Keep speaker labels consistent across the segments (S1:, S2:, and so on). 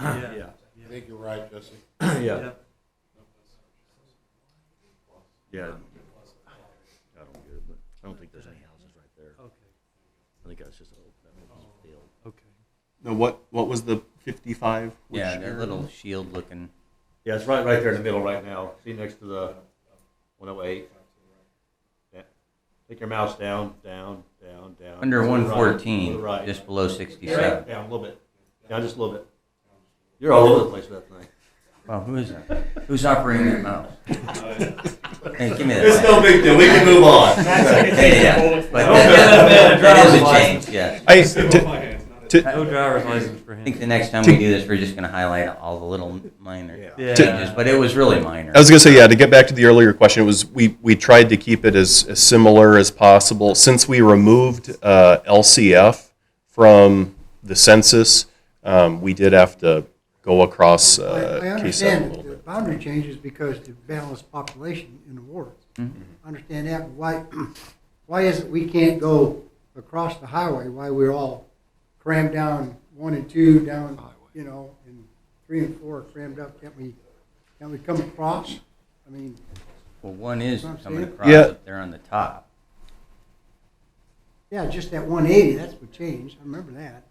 S1: Yeah.
S2: Yeah.
S1: Yeah.
S3: I think you're right, Jesse.
S2: Yeah.
S1: Yep.
S2: Yeah. I don't get it, but I don't think there's any houses right there.
S1: Okay.
S2: I think that's just a little, that was just a field.
S1: Okay.
S4: No, what what was the fifty-five? Which
S5: Yeah, that
S4: area?
S5: little shield looking.
S2: Yeah, it's right, right there in the middle right now. See next to the one oh eight. Take your mouse down, down, down, down.
S5: Under
S2: To the right, to the
S5: 114,
S2: Right.
S5: just below
S2: Right
S5: 67.
S2: down a little bit. Down just a little bit. You're all over the place with that thing.
S5: Wow, who is that? Who's operating that mouse? hey, give me
S2: It's
S5: that.
S2: no big deal. We can move on.
S5: mic. Hey, yeah. But
S2: No
S5: that,
S2: driver's
S5: that is a
S2: license.
S5: change, yeah.
S4: I, to,
S1: No driver's license for
S5: I
S1: him.
S5: think the next time we do this, we're just going to highlight all the little minor
S1: Yeah.
S5: changes, but it was really minor.
S4: I was gonna say yeah. To get back to the earlier question, it was we we tried to keep it as, as similar as possible since we removed uh, LCF from the census. Um, we did have to go across
S6: I
S4: uh,
S6: I
S4: K7 a
S6: understand
S4: little
S6: that the
S4: bit.
S6: boundary changes because to balance population in the ward. I
S4: Mm-hmm.
S6: understand that, but why, why is it we can't go across the highway, why we're all crammed down, one and two down, you know, and three and four are crammed up, can't we, can't we come across? I mean,
S5: Well, one is coming across
S4: Yeah.
S5: up there on the top.
S6: yeah, just that one eighty, that's what changed, I remember that.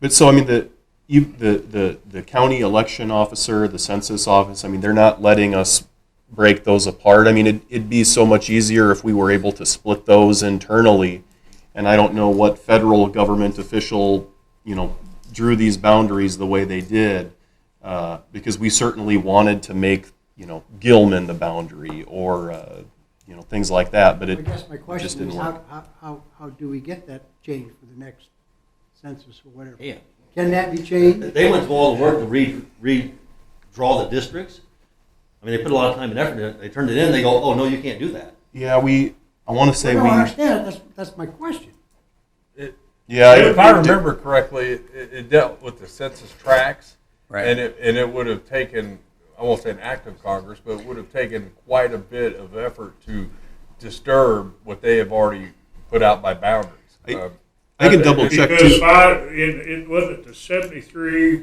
S4: But so I mean the you the, the the county election officer, the census office. I mean they're not letting us break those apart. I mean it, it'd be so much easier if we were able to split those internally. And I don't know what federal government official you know drew these boundaries the way they did uh, because we certainly wanted to make you know Gilman the boundary or uh, you know things like that. But
S6: I
S4: it
S6: guess my
S4: it just
S6: question
S4: didn't
S6: is,
S4: work.
S6: how, how- how, how do we get that changed for the next census or whatever?
S5: Yeah.
S6: Can that be changed?
S2: They went through all the work to re, redraw the districts. I mean, they put a lot of time and effort in it. They turned it in, they go, oh, no, you can't do that.
S4: Yeah, we. I want to say
S6: No,
S4: we.
S6: I understand it, that's, that's my question.
S4: Yeah,
S1: If I
S4: it- it-
S1: remember correctly, it, it dealt with the census tracts,
S5: Right.
S1: and it and it would have taken, I won't say an act of Congress, but it would have taken quite a bit of effort to disturb what they have already put out by boundaries.
S4: I-
S1: Um,
S4: I can double check
S7: Because
S4: too.
S7: five, it, it wasn't the seventy-three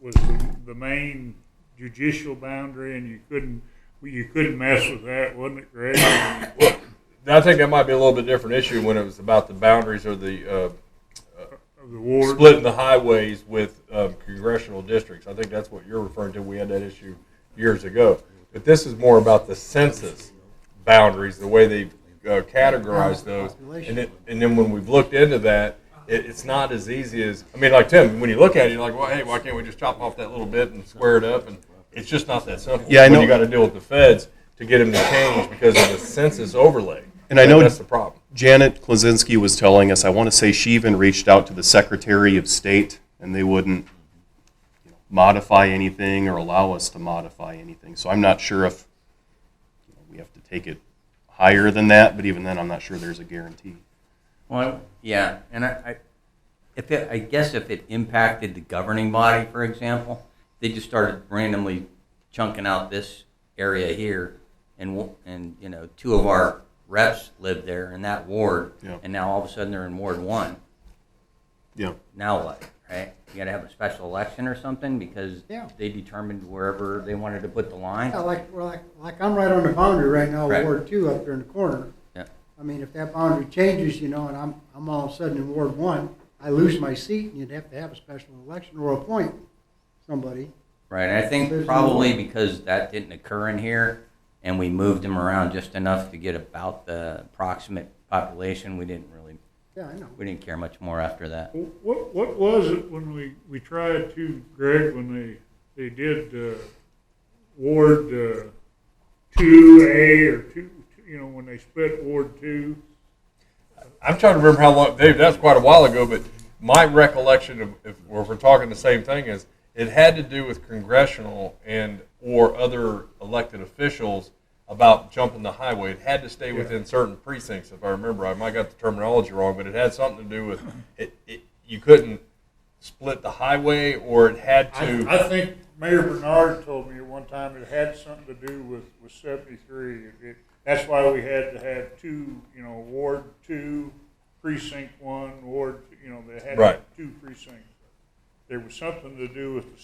S7: was the, the main judicial boundary, and you couldn't, you couldn't mess with that, wasn't it, Greg?
S1: I think that might be a little bit different issue when it was about the boundaries or the uh,
S7: Of the ward.
S1: splitting the highways with um, congressional districts. I think that's what you're referring to. We had that issue years ago. But this is more about the census boundaries, the way they uh, categorize those. And, it, and then when we've looked into that, it, it's not as easy as, I mean, like Tim, when you look at it, you're like, well, hey, why can't we just chop off that little bit and square it up? And it's just not that simple.
S4: Yeah, I
S1: When
S4: know.
S1: you got to deal with the feds to get them to change because of the census overlay.
S4: And I know-
S1: that's the problem.
S4: Janet Klozinski was telling us, I want to say she even reached out to the Secretary of State and they wouldn't you know, modify anything or allow us to modify anything. So I'm not sure if you know, we have to take it higher than that, but even then, I'm not sure there's a guarantee.
S5: Well, yeah, and I, I, if it, I guess if it impacted the governing body, for example, they just started randomly chunking out this area here, and wo- and you know, two of our reps lived there in that ward,
S4: Yeah.
S5: and now all of a sudden they're in Ward One.
S4: Yeah.
S5: Now what, right? You got to have a special election or something because
S6: Yeah. Oh,
S5: they determined wherever they wanted to put the line.
S6: Yeah, like, well, like, like I'm right on the boundary right now,
S5: Right.
S6: Ward two up there in the corner.
S5: Yeah.
S6: I mean, if that boundary changes, you know, and I'm, I'm all of a sudden in Ward one, I lose my seat and you'd have to have a special election or appoint somebody.
S5: Right, I think
S6: There's
S5: probably because that didn't occur in here, and we moved them around just enough to get about the approximate population, we didn't really,
S6: Yeah, I know.
S5: we didn't care much more after that.
S7: What, what was it when we, we tried to, Greg, when they, they did, uh, Ward, uh, two A or two, you know, when they split Ward two?
S1: I'm trying to remember how long, Dave, that's quite a while ago, but my recollection of, if, or if we're talking the same thing, is it had to do with congressional and, or other elected officials about jumping the highway. It had to stay within certain precincts, if I remember. I might got the terminology wrong, but it had something to do with, it, it, you couldn't split the highway, or it had
S7: I,
S1: to,
S7: I think Mayor Bernard told me one time it had something to do with, with seventy-three. It- it- That's why we had to have two, you know, Ward two, precinct one, Ward, you know, they
S1: Right.
S7: had two precincts. There was something to do with the